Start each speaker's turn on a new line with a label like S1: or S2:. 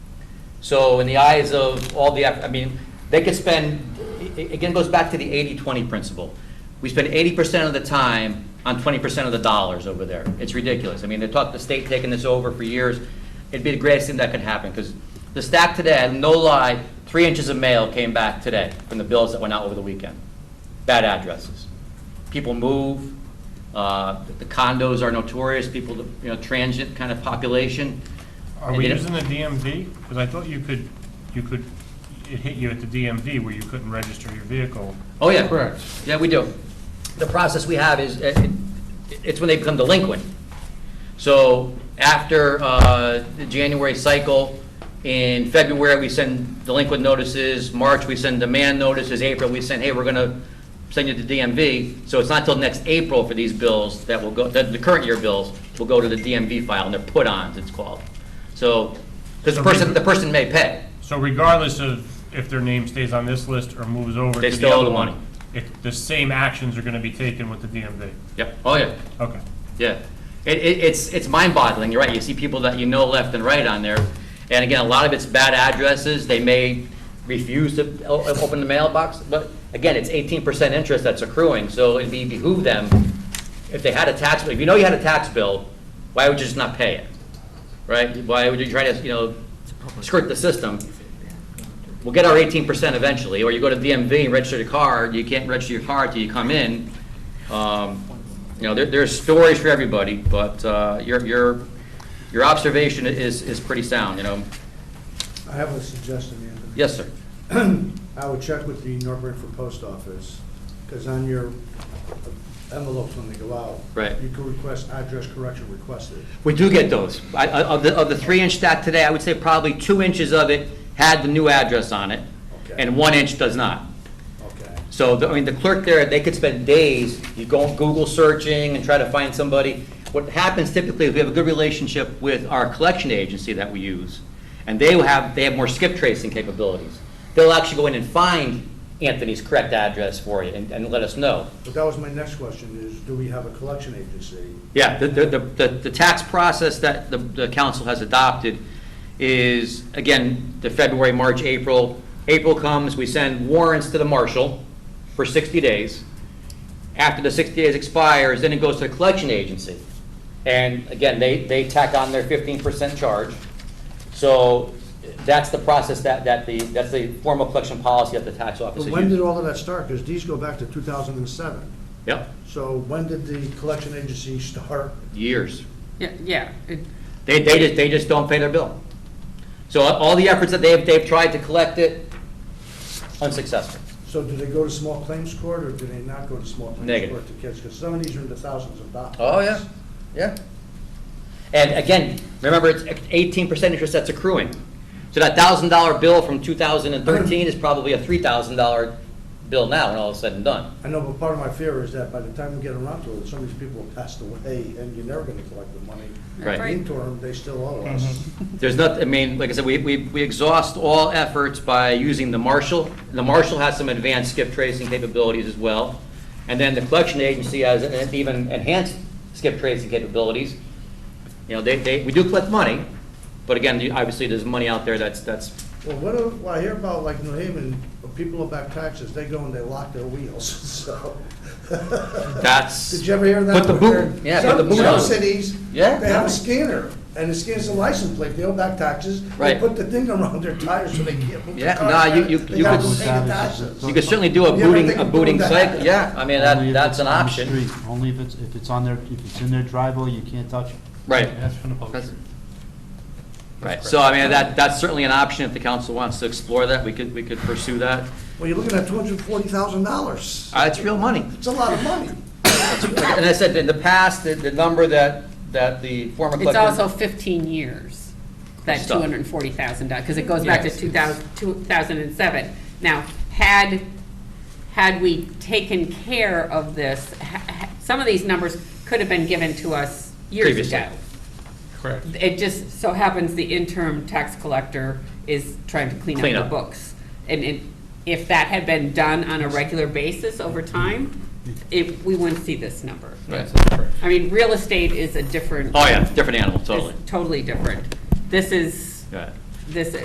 S1: So in the eyes of all the, Af- I mean, they could spend, it- it again goes back to the 80-20 principle. We spend 80% of the time on 20% of the dollars over there. It's ridiculous. I mean, they talked the state taking this over for years. It'd be the greatest thing that could happen, because the stack today, no lie, three inches of mail came back today from the bills that went out over the weekend. Bad addresses. People move, uh, the condos are notorious, people, you know, transient kind of population.
S2: Are
S1: And
S2: we
S1: you know-
S2: using the DMV? Because I thought you could, you could, it hit you at the DMV where you couldn't register your vehicle.
S1: Oh, yeah.
S3: Correct.
S1: Yeah, we do. The process we have is, uh, it- it's when they become delinquent. So after uh, the January cycle, in February, we send delinquent notices, March, we send demand notices, April, we send, hey, we're going to send you to DMV. So it's not till next April for these bills that will go, that the current year bills will go to the DMV file, and they're put-ons, it's called. So, because the
S2: So we-
S1: person, the person may pay.
S2: So regardless of if their name stays on this list or moves over
S1: They
S2: to the
S1: still owe
S2: other
S1: the money.
S2: one, it, the same actions are gonna be taken with the DMV.
S1: Yep, oh, yeah.
S2: Okay.
S1: Yeah, it, it, it's, it's mind-boggling, you're right, you see people that you know left and right on there, and again, a lot of it's bad addresses, they may refuse to o- open the mailbox, but again, it's eighteen percent interest that's accruing, so it'd be behoove them, if they had a tax, bill. if you know you had a tax bill, why would you just not pay it? Right, why would you try to, you know, skirt the system? We'll get our eighteen percent eventually, or you go to DMV and register your car, you can't register your car till you come in. Um, You know, there, there's stories for everybody, but uh, your, your, your observation is, is pretty sound, you know?
S4: I have a suggestion, Anthony.
S1: Yes, sir.
S4: I would check with the North Branford Post Office, because on your envelopes when they go out.
S1: Right.
S4: You can request address correction requested.
S1: We do get those. I- I- Of the, of the three-inch stack today, I would say probably two inches of it had the new address on it,
S4: Okay.
S1: and one inch does not.
S4: Okay.
S1: So, the- I mean, the clerk there, they could spend days, you go Google searching and try to find somebody. What happens typically is we have a good relationship with our collection agency that we use, and they will have, they have more skip tracing capabilities. They'll actually go in and find Anthony's correct address for you and, and let us know.
S4: But that was my next question, is do we have a collection agency?
S1: Yeah, the, the, the, the tax process that the, the council has adopted is, again, the February, March, April. April comes, we send warrants to the marshal for sixty days. After the sixty days expires, then it goes to the collection agency. And again, they, they tack on their fifteen percent charge. So that's the process that, that the, that's the formal collection policy that the tax office
S4: But
S1: is
S4: when did
S1: using.
S4: all of that start? Because these go back to 2007.
S1: Yep,
S4: So when did the collection agency start?
S1: years.
S5: Yeah, yeah, it,
S1: They, they just, they just don't pay their bill. So all the efforts that they've, they've tried to collect it, unsuccessful.
S4: So do they go to small claims court, or do they not go to small claims
S1: Negative. Oh,
S4: court to catch? Because some of these are in the thousands of dollars.
S1: yeah. And again, remember, it's eighteen percent interest that's accruing. So that thousand dollar bill from two thousand and thirteen is probably a three thousand dollar bill now, when all is said and done.
S4: I know, but part of my fear is that by the time we get around to it, some of these people have passed away, and you're never gonna collect the money.
S1: Right.
S5: Right.
S4: Interim, they still owe us.
S1: There's not, I mean, like I said, we, we, we exhaust all efforts by using the marshal. The marshal has some advanced skip tracing capabilities as well. And then the collection agency has an even enhanced skip tracing capabilities. You know, they, they, we do collect money, but again, you- obviously, there's money out there that's, that's,
S4: Well, what, do- what I hear about, like, New Haven, when people owe back taxes, they go and they lock their wheels, so.
S1: that's.
S4: Did you ever hear that?
S1: Put the boot, yeah, put the
S4: Some-
S1: boot
S4: Some
S1: on.
S4: cities, they
S1: Yeah.
S4: have a scanner, and it scans the license plate, they owe back taxes.
S1: Right.
S4: They put the thing around their tires so they can't move
S1: Yeah,
S4: their car.
S1: nah, you- you-
S4: They
S1: you
S4: gotta
S1: could-
S4: go pay the taxes.
S1: You could certainly do a
S4: Yeah, but
S1: booting,
S4: they
S1: a
S4: can do
S1: booting
S4: that.
S1: cycle, yeah, I mean,
S3: Only
S1: that,
S3: if
S1: that's
S3: it's
S1: an
S3: on the
S1: option.
S3: street. Only if it's, if it's on their, if it's in their driveway, you can't touch it.
S1: Right.
S2: That's from the post.
S1: Right, so I mean, that, that's certainly an option, if the council wants to explore that, we could, we could pursue that.
S4: Well, you're looking at two hundred and forty thousand dollars.
S1: Uh, it's real money.
S4: It's a lot of money.
S1: And I said, in the past, the, the number that, that the former
S5: it's
S1: collector.
S5: also 15 years, that
S1: Stop.
S5: $240,000, because it goes back to
S1: Yes.
S5: 2000 2007. Now, had, had we taken care of this, ha- ha- some of these numbers could have been given to us years
S1: Previously.
S5: ago.
S2: Correct.
S5: It just so happens the interim tax collector is trying to clean
S1: Clean
S5: up
S1: up.
S5: the books. And it- if that had been done on a regular basis over time, it, we wouldn't see this number. I mean, real estate is Oh, a different.
S1: Oh, yeah, different animal, totally.
S5: It's totally different. This is,
S1: Yeah.
S5: this